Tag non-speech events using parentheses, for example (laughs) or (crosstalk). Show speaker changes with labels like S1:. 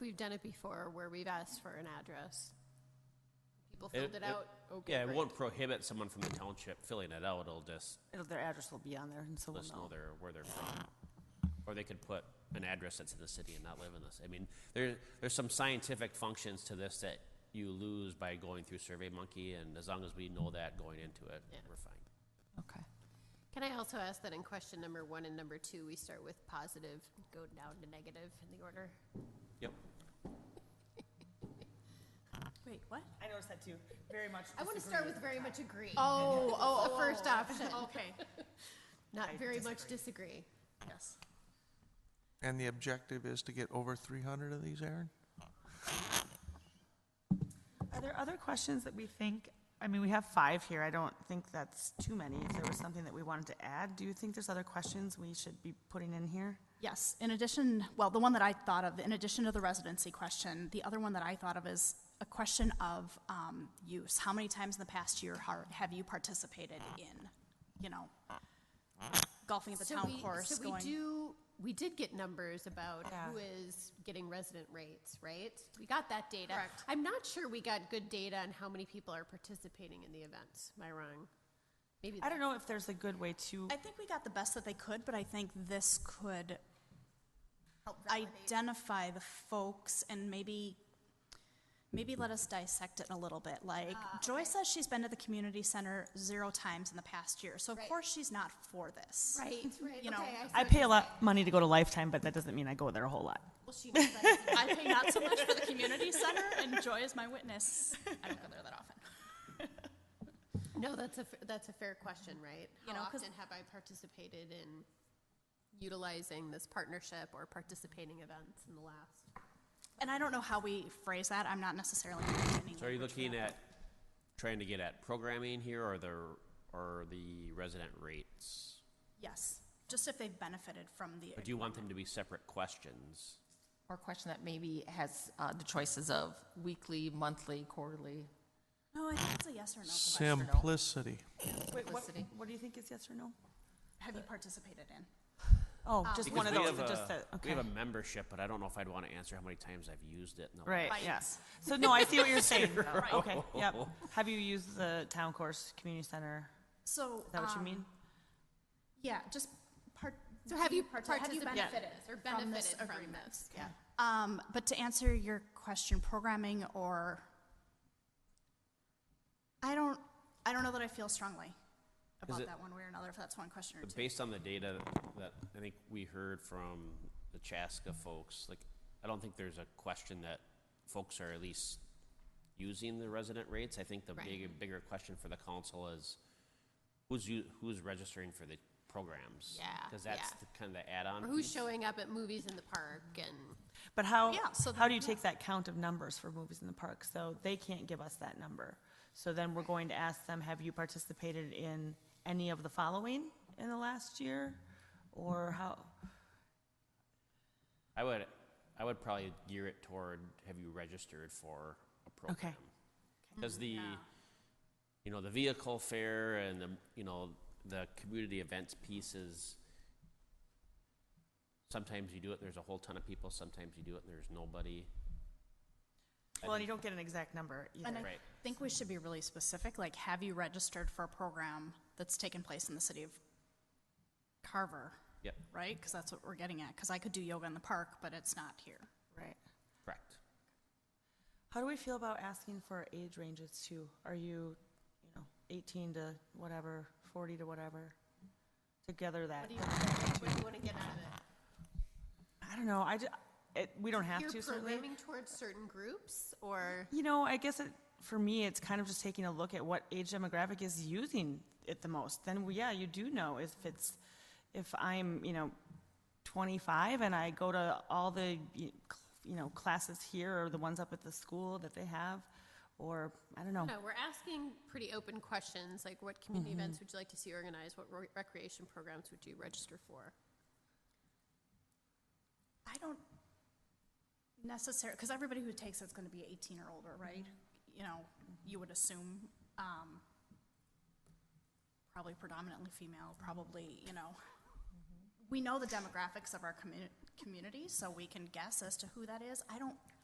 S1: We've done it before where we've asked for an address. People
S2: It-
S1: filled it
S2: it-
S1: out, okay.
S2: Yeah, it
S1: great.
S2: won't prohibit someone from the township filling it out, it'll just
S3: It'll- Their address will be on there, and so
S2: let
S3: we'll
S2: us know
S3: know.
S2: their, where they're from. Or they could put an address that's in the city and not live in this. I mean, there, there's some scientific functions to this that you lose by going through Survey Monkey, and as long as we know that going into it,
S1: Yeah.
S2: we're fine.
S3: Okay.
S1: Can I also ask that in question number one and number two, we start with positive, go down to negative in the order?
S2: Yep.
S4: Wait, what?
S5: I noticed that too, very much.
S1: I want to
S5: disagree.
S1: start with very much agree.
S4: Oh,
S1: oh, the first option, (laughs)
S4: Okay.
S1: not
S5: I
S1: very much disagree.
S4: Yes.
S6: And the objective is to get over 300 of these, Aaron?
S3: Are there other questions that we think, I mean, we have five here, I don't think that's too many. If there was something that we wanted to add, do you think there's other questions we should be putting in here?
S4: Yes, in addition, well, the one that I thought of, in addition to the residency question, the other one that I thought of is a question of um, use. How many times in the past year har- have you participated in, you know, golfing at the
S1: So
S4: town
S1: we-
S4: course,
S1: So we
S4: going?
S1: do, we did get numbers about who is getting resident rates, right? We got that data.
S4: Correct.
S1: I'm not sure we got good data on how many people are participating in the events. Am I wrong? Maybe.
S3: I don't know if there's a good way to,
S4: I think we got the best that they could, but I think this could identify the folks and maybe, maybe let us dissect it a little bit. Like, Joy says she's been to the community center zero times in the past year, so of
S1: Right.
S4: course she's not for this.
S1: Right, right,
S4: You know,
S1: okay, see
S3: I
S1: what
S3: pay
S1: you're
S3: a lot money to go to Lifetime, but that doesn't mean I go there a whole lot.
S4: Well, she knows that if I pay not so much for the community center, and Joy is my witness. I don't go there that often.
S1: saying. (laughs) No, that's a, f- that's a fair question, right? How
S4: You know, 'cause-
S1: often have I participated in utilizing this partnership or participating events in the last?
S4: And I don't know how we phrase that. I'm not necessarily understanding.
S2: So are you
S4: language for
S2: looking
S4: that.
S2: at, trying to get at programming here, or the, or the resident rates?
S4: Yes, just if they've benefited from the.
S2: Or do you want them to be separate questions?
S7: Or a question that maybe has uh, the choices of weekly, monthly, quarterly.
S4: No, I think it's a yes or no question.
S6: Simplicity.
S3: Wait, what,
S7: Simplicity.
S3: what do you think is yes or no?
S4: Have you participated in?
S3: Oh, just
S2: Because
S3: one of
S2: we
S3: those,
S2: have
S3: that just,
S2: a-
S3: said-
S2: We
S3: okay.
S2: have a membership, but I don't know if I'd want to answer how many times I've used it in the last.
S3: Right,
S4: Right.
S3: yes. So, no, I see what you're saying. (laughs) Okay, yep. Have you used the town course, community center?
S4: So. um,
S3: Is that what you mean?
S4: Yeah, just part.
S1: So have you
S4: part- have you
S1: participated
S4: benefited
S1: or
S4: from this
S1: benefited from
S4: agreement?
S1: this? Yeah.
S4: Um, but to answer your question, programming or, I don't, I don't know that I feel strongly about
S2: it-
S4: that one way or another, if that's one question or
S2: But
S4: two.
S2: Based on the data that I think we heard from the Chaska folks, like, I don't think there's a question that folks are at least using the resident rates. I think the
S1: Right.
S2: big, bigger question for the council is who's you, who's registering for the programs?
S1: Yeah,
S2: Because that's
S1: yeah.
S2: the kind of the add-on.
S1: Or who's
S2: piece.
S1: showing up at movies in the park and?
S3: But how,
S4: Yeah, so
S3: how
S4: then-
S3: do you take that count of numbers for movies in the park? So they can't give us that number. So then we're going to ask them, have you participated in any of the following in the last year? Or how,
S2: I would, I would probably gear it toward, have you registered for a program? Because the, you know, the vehicle fare and the, you know, the community events pieces, sometimes you do it, there's a whole ton of people, sometimes you do it, and there's nobody.
S3: well, and you don't get an exact number
S4: And
S3: either.
S4: I
S2: Right.
S4: think we should be really specific, like, have you registered for a program that's taken place in the city of Carver,
S2: Yep,
S4: right? Because that's what we're getting at, because I could do yoga in the park, but it's not here.
S3: Right.
S2: correct.
S3: How do we feel about asking for age ranges too? Are you, you know, eighteen to whatever, forty to whatever? Together that,
S1: What do you want to get out of it?
S3: I don't know, I, ju- it, we don't have
S1: You're
S3: to certainly.
S1: programming towards certain groups or?
S3: You know, I guess it, for me, it's kind of just taking a look at what age demographic is using it the most. Then, well, yeah, you do know if it's, if I'm, you know, 25 and I go to all the, you you know, classes here or the ones up at the school that they have, or, I don't know.
S1: No, we're asking pretty open questions, like what
S3: Mm-hmm.
S1: community events would you like to see organized? What re- recreation programs would you register for?
S4: I don't necessarily, because everybody who takes it's going to be 18 or older, right? You know, you would assume, um, probably predominantly female, probably, you know. We know the demographics of our commu- community, so we can guess as to who that is. I don't,